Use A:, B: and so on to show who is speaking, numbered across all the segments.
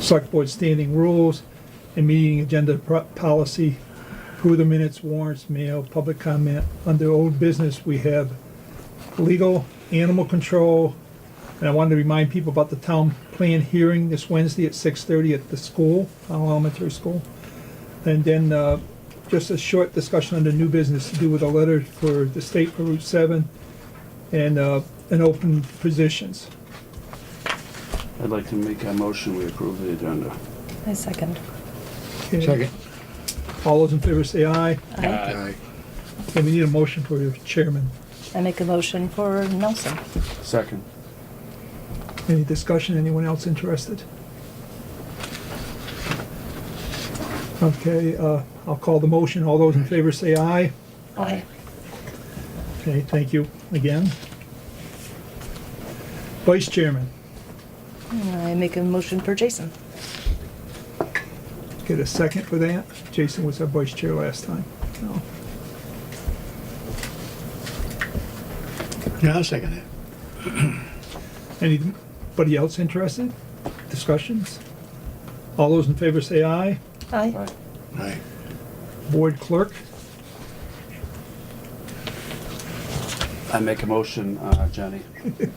A: select board standing rules and meeting agenda pro- policy, approve the minutes, warrants, mail, public comment. Under old business, we have legal, animal control, and I wanted to remind people about the town plan hearing this Wednesday at 6:30 at the school, Powell Elementary School. And then uh, just a short discussion under new business to do with a letter for the state for Route 7 and, uh, and open positions.
B: I'd like to make a motion, we approve the agenda.
C: I second.
A: Okay. All those in favor say aye.
C: I,
D: Aye.
A: Okay, we need a motion for your chairman.
C: I make a motion for Nelson.
B: Second.
A: Any discussion, anyone else interested? Okay, uh, I'll call the motion. All those in favor say aye.
C: Aye.
A: Okay, thank you again. Vice chairman,
C: I make a motion for Jason.
A: get a second for that? Jason was our vice chair last time. No.
D: Yeah, I'll second it.
A: Anybody else interested? Discussions? All those in favor say aye.
C: Aye.
D: Aye.
A: Board clerk,
B: I make a motion, uh, Jenny.
A: get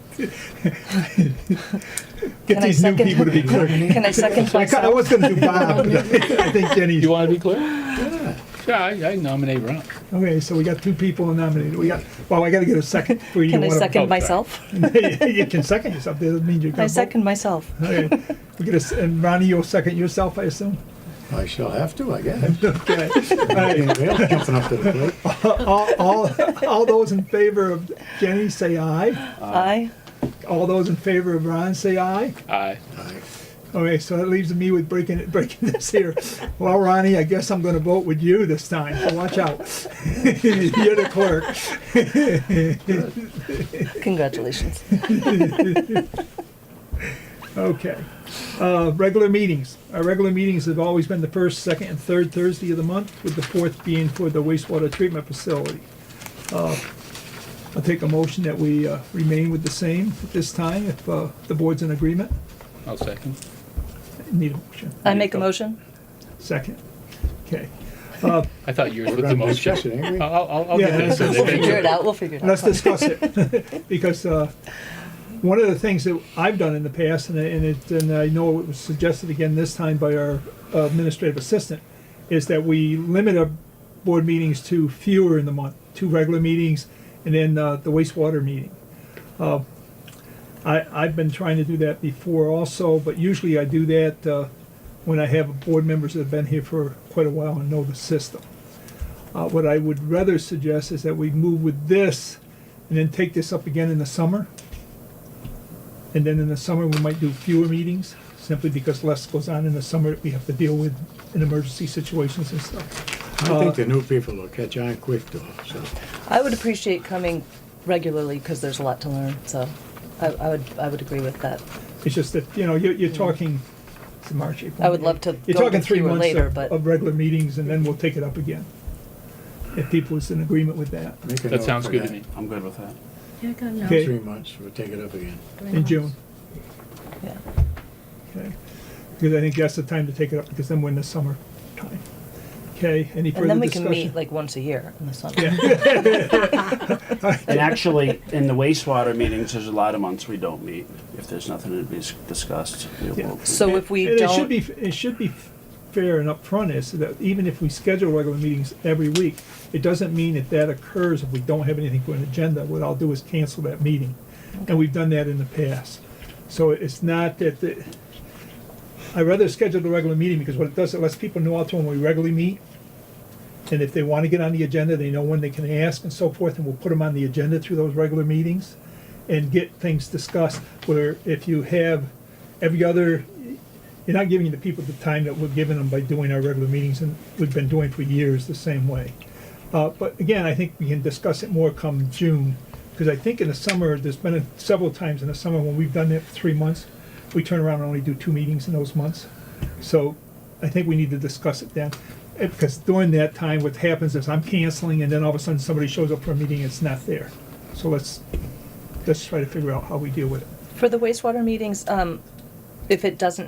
C: Can I
A: these new
C: second?
A: people to be clerk.
C: Can I second
A: I ca- I was
C: myself?
A: gonna do Bob. I think Jenny's.
E: You want to be clear? Yeah, I I nominate Ron.
A: Okay, so we got two people nominated. We got, well, I gotta get a second. for you
C: Can I
A: wanna-
E: Oh,
C: second
E: sorry.
C: myself?
A: You can second yourself, doesn't mean you're gonna
C: I
A: vote.
C: second myself.
A: Okay, we get a, s- and Ronnie, you'll second yourself, I assume?
D: I shall have to, I guess.
A: Okay. All right.
D: Anybody else jumping up to the plate?
A: All, all, all those in favor of Jenny, say aye.
C: Aye.
A: All those in favor of Ron, say aye.
E: Aye.
D: Aye.
A: Okay, so that leaves me with breaking it, breaking this here. Well, Ronnie, I guess I'm gonna vote with you this time, so watch out. You're the clerk.
C: Congratulations.
A: Okay. Uh, Regular meetings. Our regular meetings have always been the first, second, and third Thursday of the month, with the fourth being for the wastewater treatment facility. Uh, I'll take a motion that we uh, remain with the same at this time, if uh, the board's in agreement.
E: I'll second.
A: Need a motion.
C: I make a motion.
A: Second. Okay. Uh,
E: I thought yours
D: We're
E: was the Uh,
D: gonna
E: most.
D: discuss it, ain't we?
E: I'll, I'll, I'll get
A: Yeah.
E: this. so
C: We'll
E: they
C: figure
E: can-
C: it out. We'll figure it
A: Let's
C: out.
A: discuss it, because uh, one of the things that I've done in the past, and I- and it, and I know it was suggested again this time by our administrative assistant, is that we limit our board meetings to fewer in the month, two regular meetings, and then uh, the wastewater meeting. Uh, I, I've been trying to do that before also, but usually I do that uh, when I have board members that have been here for quite a while and know the system. Uh, What I would rather suggest is that we move with this and then take this up again in the summer. And then in the summer, we might do fewer meetings, simply because less goes on in the summer that we have to deal with in emergency situations and stuff.
D: I
E: uh,
D: think the new people will catch on quick though, so.
C: I would appreciate coming regularly because there's a lot to learn, so I, I would, I would agree with that.
A: It's just that, you know, you're, you're talking, it's March, April.
C: I would
A: May.
C: love to
A: You're
C: go
A: talking
C: with
A: three
C: you
A: months
C: later,
A: of-
C: but-
A: Of regular meetings, and then we'll take it up again. If people is in agreement with that,
D: make a
E: That
D: note
E: sounds
D: for
E: good
D: that.
E: to me.
B: I'm good with that.
F: Yeah, God, no.
A: Okay.
D: Three months, we'll take it up again.
A: in June.
C: Yeah.
A: Okay, because I think that's the time to take it up, because then we're in the summer time. Okay, any
C: And
A: further
C: then we can meet
A: discussion?
C: like once a year in the summer.
B: And actually, in the wastewater meetings, there's a lot of months we don't meet. If there's nothing to be s- discussed, we'll-
A: Yeah.
B: we'll-
C: So if we
A: And It should
C: don't,
A: be, it should be fair and upfront is that even if we schedule regular meetings every week, it doesn't mean that that occurs if we don't have anything for an agenda. What I'll do is cancel that meeting. And we've done that in the past. So it's not that, the- I'd rather schedule the regular meeting because what it does, it lets people know out to when we regularly meet. And if they want to get on the agenda, they know when they can ask and so forth, and we'll put them on the agenda through those regular meetings and get things discussed, where if you have every other, you're not giving the people the time that we're giving them by doing our regular meetings, and we've been doing for years the same way. Uh, but again, I think we can discuss it more come June, because I think in the summer, there's been a- several times in the summer when we've done it for three months, we turn around and only do two meetings in those months. So I think we need to discuss it then, eh, because during that time, what happens is I'm canceling, and then all of a sudden, somebody shows up for a meeting, and it's not there. So let's, let's try to figure out how we deal with it.
C: for the wastewater meetings, um, if it doesn't